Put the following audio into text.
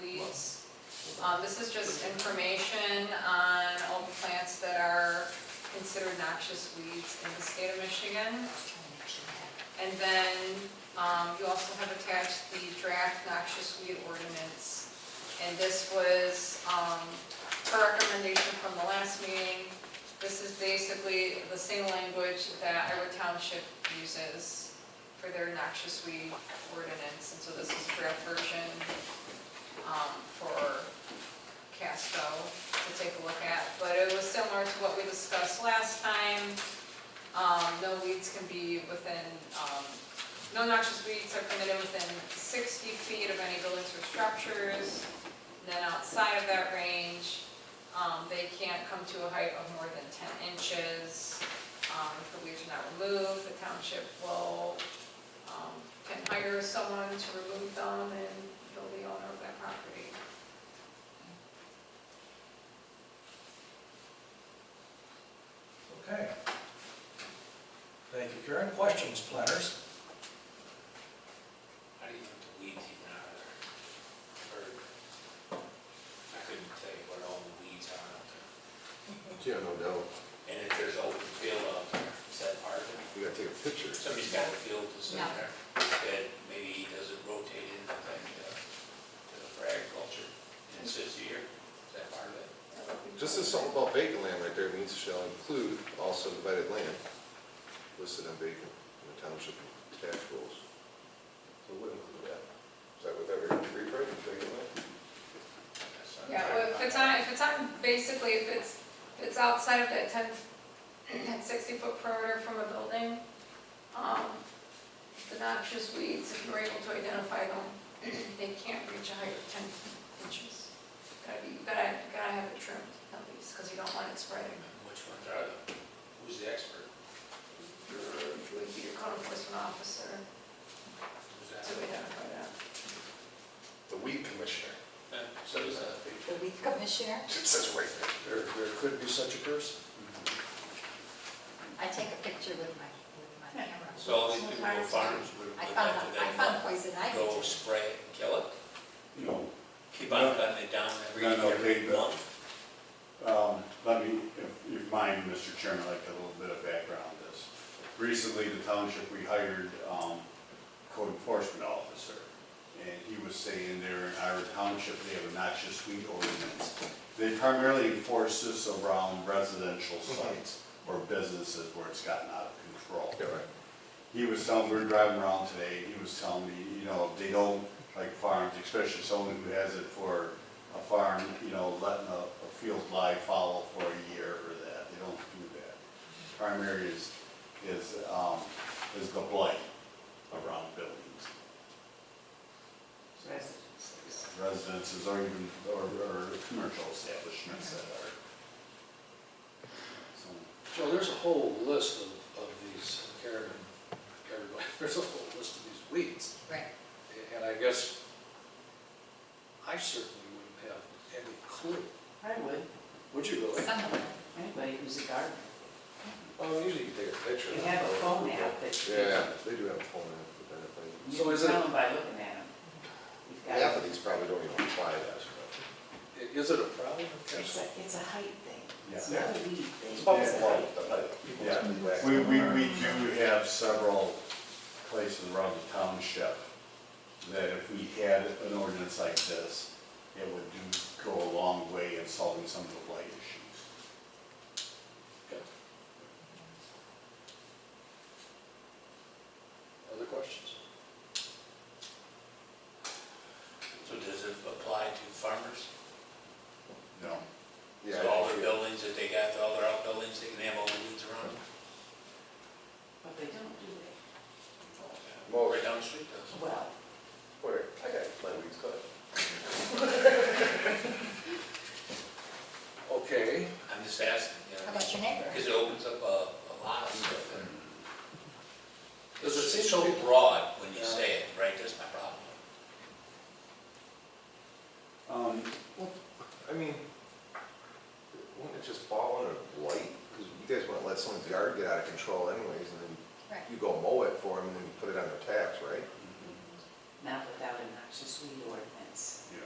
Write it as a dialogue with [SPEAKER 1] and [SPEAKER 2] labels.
[SPEAKER 1] Um, this is just information on all the plants that are considered noxious weeds in the state of Michigan. And then, um, you also have attached the draft noxious weed ordinance. And this was, um, her recommendation from the last meeting. This is basically the same language that Iowa Township uses for their noxious weed ordinance. And so this is draft version, um, for Casco to take a look at. But it was similar to what we discussed last time. Um, no weeds can be within, um, no noxious weeds are permitted within sixty feet of any buildings or structures. And Then outside of that range, um, they can't come to a height of more than ten inches. Um, if the weeds are not removed, the township will, um, can hire someone to remove them and he'll be owner of that property.
[SPEAKER 2] Okay. Thank you, Karen. Questions, planners?
[SPEAKER 3] How do you get the weeds even out of there? Or, I couldn't tell you what all the weeds are out there.
[SPEAKER 4] Yeah, no doubt.
[SPEAKER 3] And if there's open field out there, is that part of it?
[SPEAKER 4] We gotta take a picture.
[SPEAKER 3] Somebody's got a field that's in
[SPEAKER 1] No.
[SPEAKER 3] there that maybe doesn't rotate in, I think, uh, to- for agriculture. And it sits here, is that part of it?
[SPEAKER 4] Just as something about vacant land right there means shall include all subdivided land listed on vacant in the township tax rules. So what include that? Is that what that re- rewrite, is vacant land?
[SPEAKER 3] That's not-
[SPEAKER 1] Yeah, well, if it's on, if it's on, basically, if it's, if it's outside of that ten, that sixty-foot perimeter from a building, um, the noxious weeds, if you're able to identify them, they can't reach a height of ten inches. Gotta be, you gotta, gotta have it trimmed at least, because you don't want it spreading.
[SPEAKER 3] Which ones are the, who's the expert?
[SPEAKER 1] Your- Would be your code enforcement officer
[SPEAKER 3] Who's
[SPEAKER 1] to
[SPEAKER 3] that?
[SPEAKER 1] identify that.
[SPEAKER 4] The weed commissioner.
[SPEAKER 3] Yeah, So
[SPEAKER 5] uh,
[SPEAKER 3] is that.
[SPEAKER 6] The weed commissioner,
[SPEAKER 4] It says right there. There, there could be such a person.
[SPEAKER 6] I take a picture with my, with my camera.
[SPEAKER 3] So all these people who farms would, would
[SPEAKER 6] I
[SPEAKER 3] like
[SPEAKER 6] found,
[SPEAKER 3] to
[SPEAKER 6] I
[SPEAKER 3] then
[SPEAKER 6] found poison ivy.
[SPEAKER 3] go spray it and kill it?
[SPEAKER 5] No,
[SPEAKER 3] Keep on cutting it down every,
[SPEAKER 5] No, no,
[SPEAKER 3] every
[SPEAKER 5] they- but-
[SPEAKER 3] month?
[SPEAKER 5] um, let me, if you mind, Mr. Chairman, I'd like a little bit of background on this. Recently, the township, we hired, um, code enforcement officer, and he was saying there in our township, they have a noxious weed ordinance. They primarily enforce this around residential sites or businesses where it's gotten out of control.
[SPEAKER 4] Yeah, right.
[SPEAKER 5] He was telling, we were driving around today, he was telling me, you know, they don't, like farms, especially someone who has it for a farm, you know, letting a, a field lie fallow for a year or that, they don't do that. Primary is, is, um, is the blight around buildings. Residences or even, or, or commercial establishments that are. So,
[SPEAKER 7] Joe, there's a whole list of, of these, Karen and everybody, there's a whole list of these weeds.
[SPEAKER 6] Right.
[SPEAKER 7] And I guess I certainly wouldn't have any clue.
[SPEAKER 8] I would,
[SPEAKER 7] Would you really?
[SPEAKER 6] Some of them.
[SPEAKER 8] anybody who's a gardener.
[SPEAKER 4] Oh, usually you can take a picture.
[SPEAKER 8] You have a phone app that you
[SPEAKER 4] Yeah, they do have a phone app for that, but.
[SPEAKER 8] you
[SPEAKER 7] So
[SPEAKER 8] can
[SPEAKER 7] is it-
[SPEAKER 8] tell them by looking at them. You've got-
[SPEAKER 4] Half of these probably don't even apply that.
[SPEAKER 7] I- Is it a problem?
[SPEAKER 8] It's a, it's a height thing, it's
[SPEAKER 5] Yeah.
[SPEAKER 8] not a weed thing.
[SPEAKER 4] It's
[SPEAKER 8] It's a
[SPEAKER 4] about
[SPEAKER 8] height.
[SPEAKER 4] the light.
[SPEAKER 5] Yeah, we, we, we do have several places around the township that if we had an ordinance like this, it would do, go a long way in solving some of the blight issues.
[SPEAKER 7] Other questions?
[SPEAKER 3] So does it apply to farmers?
[SPEAKER 5] No,
[SPEAKER 4] Yeah,
[SPEAKER 3] So all
[SPEAKER 4] I
[SPEAKER 3] their
[SPEAKER 4] see.
[SPEAKER 3] buildings that they got, all their outbuildings, they can have all the weeds around them?
[SPEAKER 8] But they don't do that.
[SPEAKER 4] Well-
[SPEAKER 3] Right down the street does.
[SPEAKER 8] Well,
[SPEAKER 4] Where? I got my weeds cut.
[SPEAKER 7] Okay,
[SPEAKER 3] I'm just asking, you
[SPEAKER 6] How
[SPEAKER 3] know,
[SPEAKER 6] about your neighbor?
[SPEAKER 3] because it opens up a, a lot of stuff.
[SPEAKER 5] Mm.
[SPEAKER 3] and
[SPEAKER 7] Does it
[SPEAKER 3] It's
[SPEAKER 7] seem to
[SPEAKER 3] so
[SPEAKER 7] be-
[SPEAKER 3] broad when you
[SPEAKER 7] Yeah.
[SPEAKER 3] say it, right, that's my problem.
[SPEAKER 5] um,
[SPEAKER 4] I mean, wouldn't it just fall under blight? Because you guys wouldn't let someone's yard get out of control anyways, and then
[SPEAKER 6] Right.
[SPEAKER 4] you go mow it for them, and then you put it on their tax, right?
[SPEAKER 8] not without a noxious weed ordinance.